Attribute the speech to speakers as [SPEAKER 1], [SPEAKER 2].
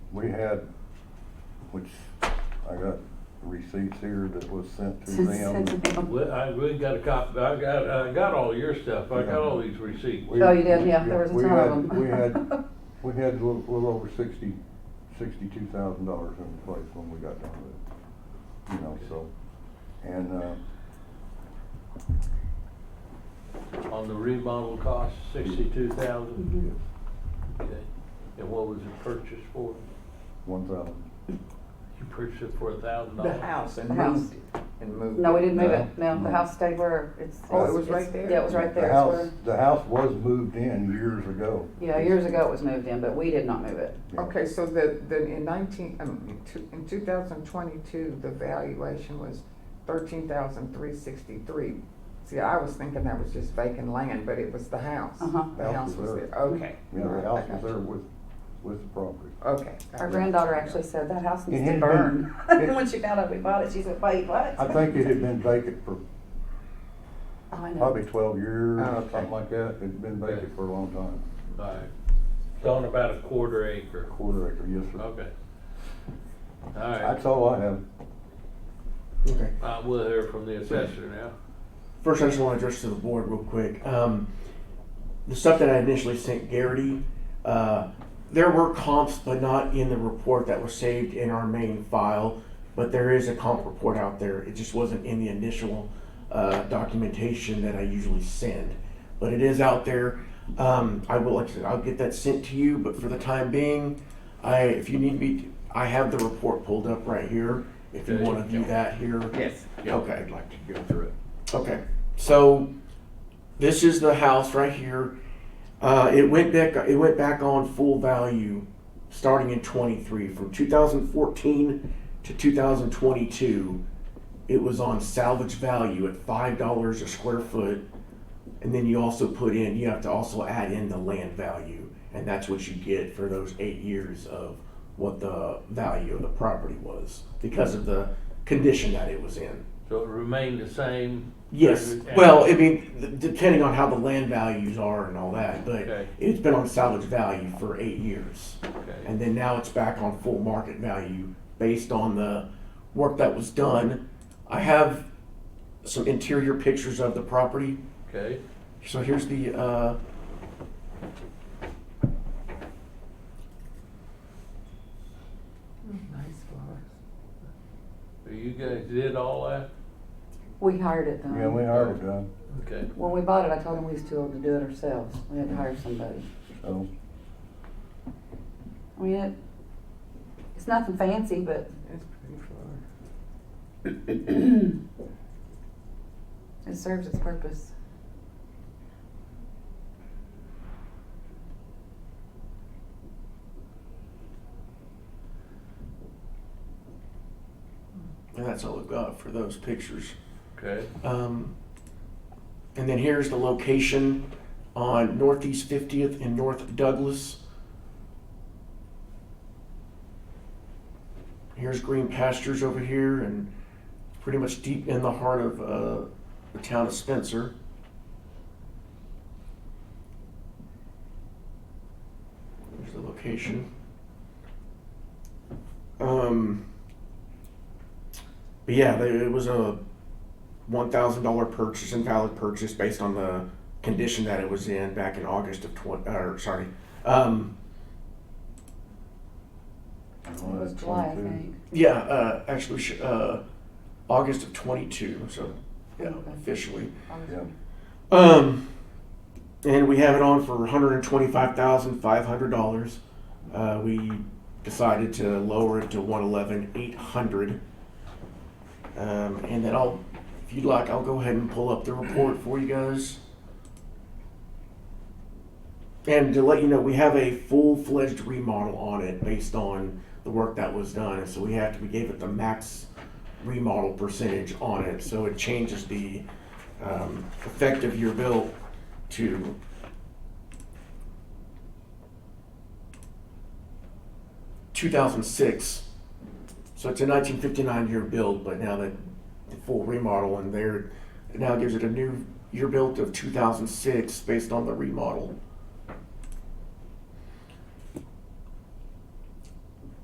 [SPEAKER 1] we had, which I got receipts here that was sent to
[SPEAKER 2] Since- since
[SPEAKER 1] them.
[SPEAKER 2] then.
[SPEAKER 3] Well, I really got a copy, I got, I got all your stuff, I got all these receipts.
[SPEAKER 1] We-
[SPEAKER 2] Oh, you did, yeah, there was a
[SPEAKER 1] we
[SPEAKER 2] ton of
[SPEAKER 1] had-
[SPEAKER 2] them.
[SPEAKER 1] We had, we had a little, little over sixty, sixty-two thousand dollars in place when we got done with it, you know, so. And, uh,
[SPEAKER 3] On the remodel cost, sixty-two thousand,
[SPEAKER 2] Mhm.
[SPEAKER 3] okay. And what was it purchased for?
[SPEAKER 1] one thousand,
[SPEAKER 3] You purchased it for a thousand
[SPEAKER 4] The
[SPEAKER 3] dollars?
[SPEAKER 4] house and
[SPEAKER 2] The house.
[SPEAKER 4] moved it, and moved it.
[SPEAKER 2] No, we didn't move
[SPEAKER 1] No.
[SPEAKER 2] it, no, the house stayed where it's.
[SPEAKER 1] Oh, it was
[SPEAKER 2] it's-
[SPEAKER 4] right there?
[SPEAKER 2] Yeah, it was right
[SPEAKER 1] The
[SPEAKER 2] there, it's
[SPEAKER 1] house,
[SPEAKER 2] where,
[SPEAKER 1] the house was moved in years ago.
[SPEAKER 2] yeah, years ago it was moved in, but we did not move it.
[SPEAKER 1] Yeah.
[SPEAKER 4] Okay, so the, the, in nineteen, um, in two- in two thousand twenty-two, the valuation was thirteen thousand three sixty-three. See, I was thinking that was just vacant land, but it was the house.
[SPEAKER 2] Uh-huh.
[SPEAKER 4] The
[SPEAKER 1] House
[SPEAKER 4] house
[SPEAKER 1] was
[SPEAKER 4] was
[SPEAKER 1] there.
[SPEAKER 4] there, okay.
[SPEAKER 1] Yeah, the
[SPEAKER 4] Alright, I
[SPEAKER 1] house was
[SPEAKER 4] got
[SPEAKER 1] there
[SPEAKER 4] you.
[SPEAKER 1] with, with the property.
[SPEAKER 4] Okay.
[SPEAKER 2] Our granddaughter actually said, that house
[SPEAKER 1] It
[SPEAKER 2] needs to
[SPEAKER 1] had been-
[SPEAKER 2] burn.
[SPEAKER 1] it-
[SPEAKER 2] When she found out we bought it, she said, wait, what?
[SPEAKER 1] I think it had been vacant for
[SPEAKER 2] Oh, I know.
[SPEAKER 1] probably twelve years,
[SPEAKER 4] Oh, okay.
[SPEAKER 1] something like that. It'd been vacant for a long time,
[SPEAKER 3] All right. It's on about a quarter acre.
[SPEAKER 1] quarter acre, yes, sir.
[SPEAKER 3] Okay. All right,
[SPEAKER 1] That's all I have.
[SPEAKER 5] Okay.
[SPEAKER 3] I will hear from the assessor now.
[SPEAKER 5] First, I just want to address to the board real quick. Um, the stuff that I initially sent Garrity, uh, there were comps, but not in the report that was saved in our main file. But there is a comp report out there. It just wasn't in the initial uh, documentation that I usually send, but it is out there. Um, I will, like I said, I'll get that sent to you. But for the time being, I if you need me, to- I have the report pulled up right here. If you want to view that here,
[SPEAKER 4] Yes.
[SPEAKER 5] Okay, I'd like to go
[SPEAKER 3] through it.
[SPEAKER 5] Okay, so this is the house right here. Uh, it went back. It went back on full value, starting in twenty three. From two thousand fourteen to two thousand twenty two, it was on salvage value at five dollars a square foot. And then you also put in. You have to also add in the land value, and that's what you get for those eight years of what the value of the property was because of the condition that it was in.
[SPEAKER 3] So it remained the same?
[SPEAKER 5] Yes.
[SPEAKER 3] And-
[SPEAKER 5] Well, I mean, th- depending on how the land values are and all that, but
[SPEAKER 3] Okay.
[SPEAKER 5] it's been on salvage value for eight years.
[SPEAKER 3] Okay,
[SPEAKER 5] And then now it's back on full market value based on the work that was done. I have some interior pictures of the property.
[SPEAKER 3] okay.
[SPEAKER 5] So here's the, uh,
[SPEAKER 4] Nice flower.
[SPEAKER 3] So You guys did all that?
[SPEAKER 2] We hired it
[SPEAKER 1] Yeah, we
[SPEAKER 2] though.
[SPEAKER 1] hired it done,
[SPEAKER 3] Okay.
[SPEAKER 2] When we bought it, I told them we was too old to do it ourselves. We had to hire somebody.
[SPEAKER 1] so.
[SPEAKER 2] I mean, it, it's nothing fancy, but
[SPEAKER 4] It's pretty flower.
[SPEAKER 2] it serves its purpose.
[SPEAKER 5] and that's all I've got for those pictures.
[SPEAKER 3] Okay,
[SPEAKER 5] Um, and then here's the location on Northeast 50th and North Douglas. Here's green pastures over here, and pretty much deep in the heart of uh, the town of Spencer. Here's the location. Um, but yeah, they, it was a one thousand dollar purchase and valid purchase based on the condition that it was in back in August of twenty. Or sorry, um,
[SPEAKER 2] It was July, I think.
[SPEAKER 5] yeah, uh, actually sh- uh, August of twenty two. So yeah,
[SPEAKER 2] Okay.
[SPEAKER 5] officially.
[SPEAKER 1] Yeah,
[SPEAKER 5] Um, and we have it on for one hundred and twenty five thousand five hundred dollars. Uh, we decided to lower it to one eleven eight hundred. Um, and then I'll, if you'd like, I'll go ahead and pull up the report for you guys. And to let you know, we have a full-fledged remodel on it based on the work that was done, and so we have to, we gave it the max remodel percentage on it, so it changes the, um, effective year bill to. Two thousand six, so it's a nineteen fifty-nine year build, but now that the full remodel in there, it now gives it a new year built of two thousand six based on the remodel.